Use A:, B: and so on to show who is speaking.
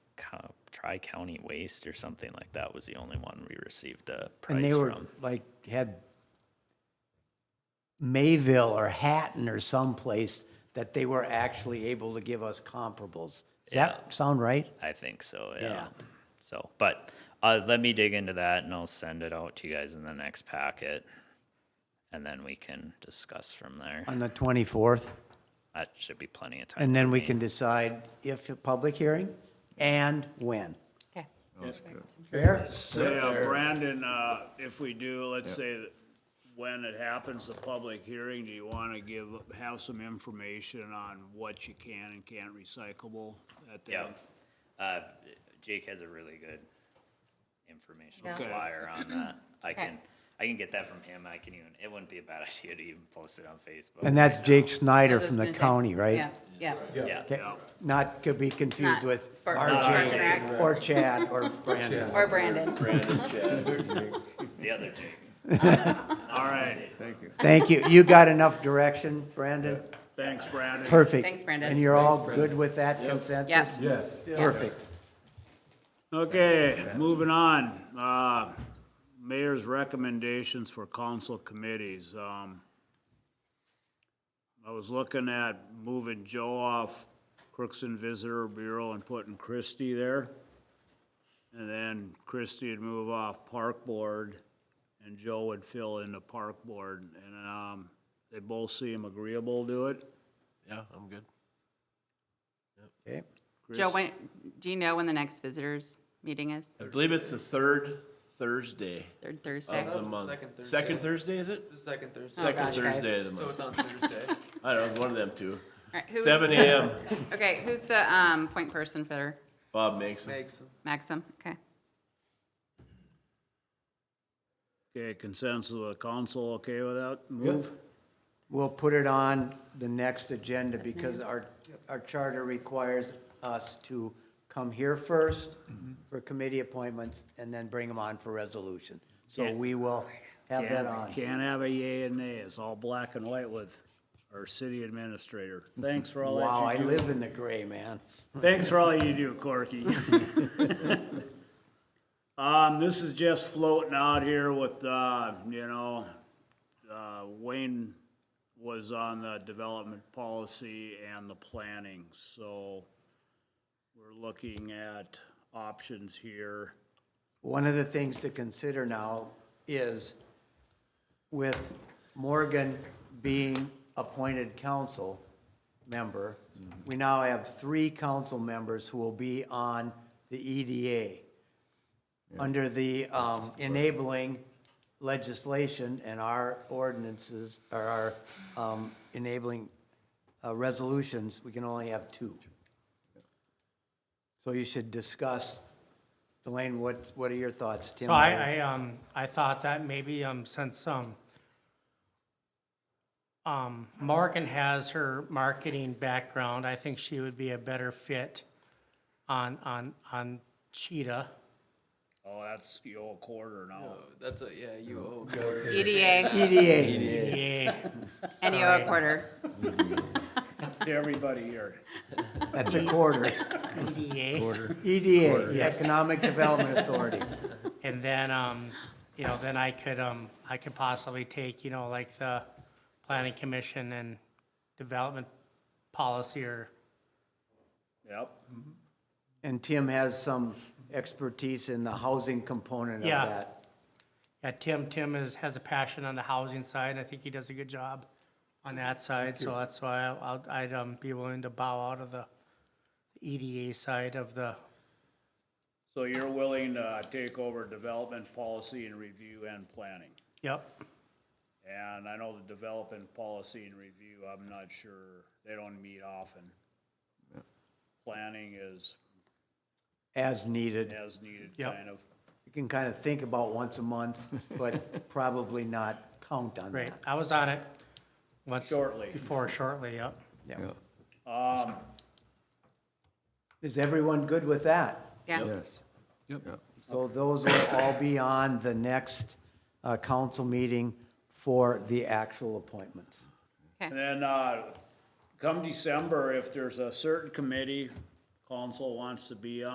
A: Tri County Waste or something like that was the only one we received a
B: And
A: price
B: they were
A: from.
B: like, had Mayville or Hatton or someplace that they were actually able to give us comparables. Does that sound right?
A: I think so, yeah.
B: Yeah.
A: So, but uh, let me dig into that and I'll send it out to you guys in the next packet. And then we can discuss from there.
B: On the 24th?
A: That should be plenty of time.
B: And
A: for
B: then we
A: me.
B: can decide if a public hearing and when.
C: Okay.
B: Fair?
D: So, yeah, Brandon, uh, if we do, let's say that when it happens, the public hearing, do you wanna give, have some information on what you can and can't recyclable at the?
A: Yeah. Uh, Jake has a really good informational
C: Yeah.
D: Okay.
A: flyer on that. I
C: Okay.
A: can, I can get that from him. I can even, it wouldn't be a bad idea to even post it on Facebook.
B: And that's Jake Snyder
C: I was
B: from the
C: gonna say-
B: county, right?
C: Yeah, yeah.
A: Yeah.
B: Okay, Not to be confused
C: Not
B: with
C: Spark-
B: RJ
C: Spark.
B: or Chad or Brandon.
C: Or Brandon.
A: The other Jake.
D: All right,
B: Thank you. You got enough direction, Brandon?
D: thanks, Brandon.
B: Perfect.
C: Thanks, Brandon.
B: And you're all good with that consensus?
C: Yeah.
E: Yes.
B: Perfect.
D: Okay, moving on. Uh, Mayor's recommendations for council committees. Um, I was looking at moving Joe off Crooks and Visitor Bureau and putting Christie there. And then Christie would move off Park Board and Joe would fill in the Park Board. And um, they both seem agreeable to it.
E: Yeah, I'm good.
B: Okay.
C: Joe, when, do you know when the next visitors meeting is?
E: I believe it's the third Thursday
C: Third Thursday?
E: of the month.
F: second Thursday.
E: Second Thursday, is it?
F: The second Thursday.
E: Second
C: gosh, guys.
E: Thursday of the
F: So
E: month.
F: it's on Thursday.
E: I don't know, one of them two.
C: All right, who's-
E: Seven AM,
C: Okay, who's the, um, point person for
E: Bob makes it.
F: Makes them.
C: Maxim? Okay.
D: Okay, consensus of the council, okay with that move?
B: We'll put it on the next agenda because
D: Mm-hmm.
B: our, our charter requires us to come here first
D: Mm-hmm.
B: for committee appointments and then bring them on for resolution. So
D: Yeah.
B: we will have that
D: Can't-
B: on.
D: Can't have a yay and nay, it's all black and white with our city administrator. Thanks for all
B: Wow, I
D: that you
B: live in the gray, man.
D: do. Thanks for all you do, Corky. Um, this is just floating out here with, uh, you know, uh, Wayne was on the development policy and the planning, so we're looking at options here.
B: One of the things to consider now is with Morgan being appointed council member, we now have three council members who will be on the EDA under the um, enabling legislation and our ordinances, or our um, enabling uh, resolutions, we can only have two. So you should discuss, Elaine, what, what are your thoughts, Tim?
G: So I, I, um, I thought that maybe, um, since, um, um, Morgan has her marketing background, I think she would be a better fit on, on, on Cheetah.
D: Oh, that's the old quarter now.
F: Oh, That's a, yeah, you owe.
C: E EDA,
B: E EDA.
G: Yay.
C: NEO E a quarter.
D: To everybody here.
B: That's a quarter.
G: EDA.
B: EDA, E Economic Development Authority.
G: And then, um, you know, then I could, um, I could possibly take, you know, like the planning commission and development policy or,
D: Yep.
B: And Tim has some expertise in the housing component of
G: Yeah.
B: that.
G: yeah, Tim, Tim is, has a passion on the housing side. I think he does a good job on that side, so that's why I- I'll, I'd, um, be willing to bow out of the EDA side of the,
D: So you're willing to take over development policy and review and planning?
G: yep,
D: And I know the development policy and review, I'm not sure, they don't meet often. Planning is
B: As needed.
D: as needed,
G: Yep.
D: kind of.
B: You can kind of think about once a month, but probably not count on
G: right.
B: that.
G: I was on it once.
D: Shortly.
G: Before, shortly, yep.
D: Um,
B: Is everyone good with that?
C: Yeah.
B: So those will all be on the next uh, council meeting for the actual appointments.
D: and then, uh, come December, if there's a certain committee council wants to be on.